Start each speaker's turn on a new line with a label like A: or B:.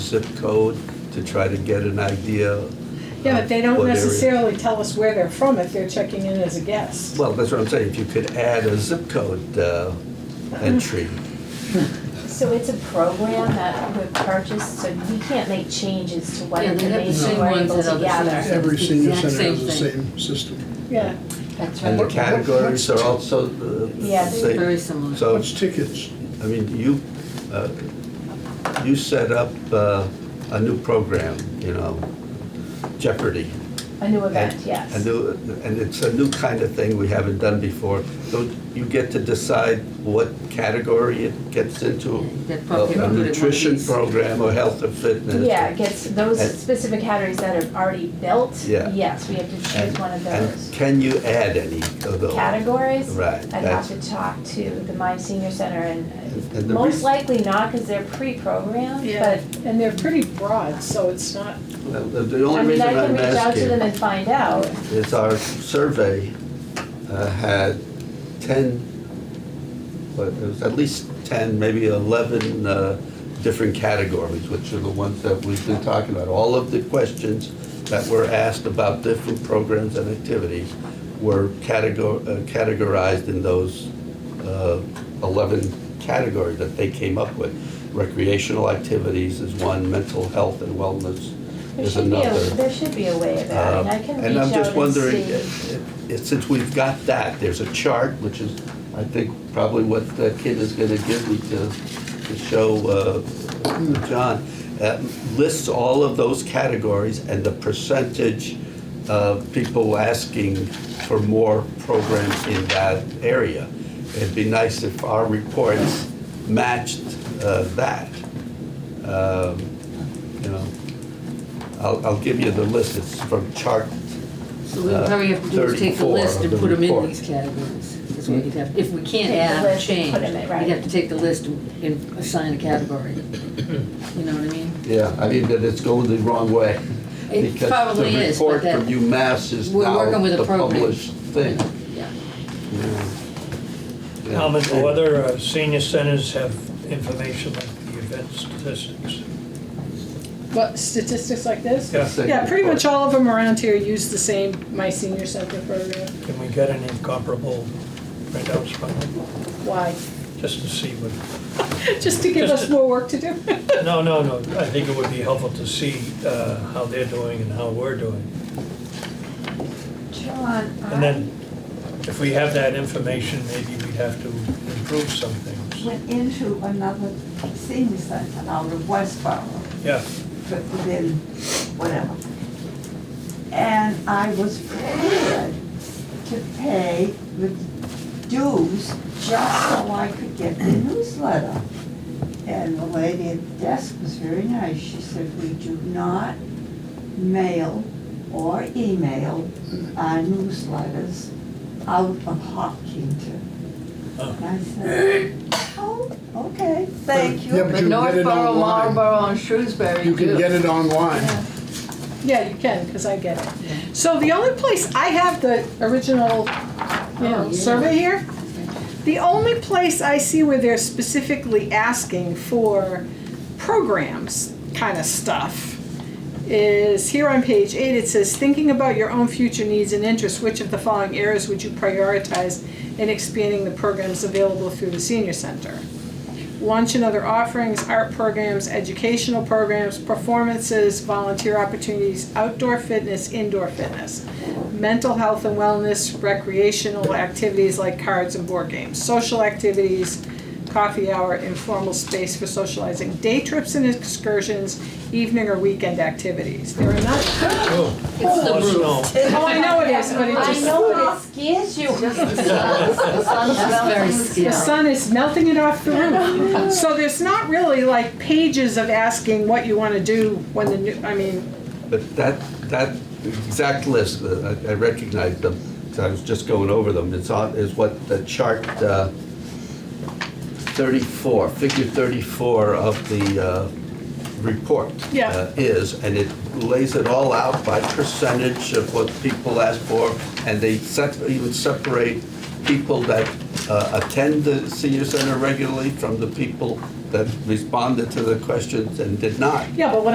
A: zip code to try to get an idea.
B: Yeah, but
A: of
B: they don't
A: what area-
B: necessarily tell us where they're from if they're checking in as a guest.
A: Well, that's what I'm saying, if you could add a zip code uh,
B: Uh-huh.
A: entry.
C: So it's a program that we've purchased, so we can't make changes to what
D: Yeah, they have the
C: information
D: same
C: we're
D: ones
C: able
D: that
C: to
D: other
C: gather.
D: centers.
E: Every senior
D: Exact
E: center has
D: same
E: the same system.
B: Yeah,
D: That's
A: And the
D: right.
A: categories are also uh,
C: Yeah,
A: the
C: they're
A: same.
D: Very similar.
A: So,
E: What's tickets?
A: I mean, you, uh, you set up uh, a new program, you know, Jeopardy.
C: A new
A: And-
C: event, yes.
A: And, do- and it's a new kind of thing we haven't done before. So you get to decide what category it gets into.
D: That probably
A: A a
D: included one of
A: nutrition
D: these.
A: program or health or fitness.
C: Yeah, it gets those
A: And-
C: specific categories that are already built.
A: Yeah.
C: Yes, we have to
A: And-
C: choose one of
A: and
C: those
A: can you add any of those?
C: categories.
A: Right,
C: I'd have
A: that's-
C: to talk to the My Senior Center and uh,
A: And the reason-
C: most likely not because they're pre-programmed,
B: yeah,
C: but
B: and they're pretty broad, so it's not,
A: Well, The the
C: I
A: only
C: mean,
A: reason
C: I can
A: I'm
C: reach out to
A: asking
C: them and find out.
A: is our survey uh, had 10, what, it was at least 10, maybe 11 uh, different categories, which are the ones that we've been talking about. All of the questions that were asked about different programs and activities were categor- uh, categorized in those uh, 11 categories that they came up with. Recreational activities is one, mental health and wellness
C: There
A: is
C: should be
A: another.
C: a, there should be a way of that,
A: Um,
C: and I can
A: And
C: reach out and
A: I'm
C: see.
A: just wondering, uh, uh, since we've got that, there's a chart, which is, I think, probably what the kid is gonna give me to, to show uh, John, uh, lists all of those categories and the percentage of people asking for more programs in that area. It'd be nice if our reports matched uh, that. Um, You know, I'll, I'll give you the list, it's from chart,
D: So we probably have to do is take the
A: 34
D: list and
A: of the
D: put them in
A: report.
D: these categories. That's what you'd have, if we can't
C: Take the
D: add or
C: list, put
D: change,
C: 'em in,
D: we'd
C: right.
D: have to take the list and and assign a category. You know what I mean?
A: yeah, I mean, that it's going the wrong way.
D: It
A: because
D: probably is, but
A: The
D: that-
A: report from UMass is
D: We're
A: now
D: working with a
A: the
D: program.
A: published thing.
D: Yeah.
A: Yeah.
F: Thomas, do other uh, senior centers have information like the event statistics?
B: what, statistics like this?
F: Yeah,
A: Second
B: Yeah, pretty much
A: report.
B: all of them around here use the same My Senior Center program.
F: can we get any comparable printouts from them,
B: Why?
F: just to see what?
B: Just to give us more work to do.
F: No, no, no, I think it would be helpful to see uh, how they're doing and how we're doing.
C: John,
G: uh,
C: I,
F: And then, if we have that information, maybe we'd have to improve some things.
G: went into another senior center out of Westboro,
F: Yeah,
G: but within whatever. And I was prepared to pay the dues just so I could get the newsletter. And the lady at the desk was very nice. She said, we do not mail or email our newsletters out of Hopkinton.
F: Oh.
G: And I said, oh, okay, thank you.
E: Yeah, but
H: But
E: you can get it
H: Northborough,
E: online.
H: Marlborough, and Shrewsbury
E: You can
H: do.
E: get it online.
B: Yeah, you can, because I get it. So the only place, I have the original, you
D: Oh,
B: know,
D: yeah.
B: survey here. The only place I see where they're specifically asking for programs kind of stuff is here on page eight, it says, thinking about your own future needs and interests, which of the following areas would you prioritize in expanding the programs available through the senior center? lunch and other offerings, art programs, educational programs, performances, volunteer opportunities, outdoor fitness, indoor fitness, mental health and wellness, recreational activities like cards and board games, social activities, coffee hour, informal space for socializing, day trips and excursions, evening or weekend activities. There are not,
F: oh,
D: It's the
F: let us
D: roof.
F: know.
B: oh, I know it is, but it
C: I
B: just,
C: know, but it scares you.
D: The sun's very
B: the
D: still.
B: sun is melting it off the roof. So there's not really like pages of asking what you wanna do when the new, I mean,
A: But that, that exact list, uh, I I recognize them, 'cause I was just going over them, it's on, is what the chart uh, 34, figure 34 of the uh, report
B: Yeah.
A: uh, is, and it lays it all out by percentage of what people ask for, and they sep- even separate people that uh, attend the senior center regularly from the people that responded to the questions and did not.
B: Yeah, but what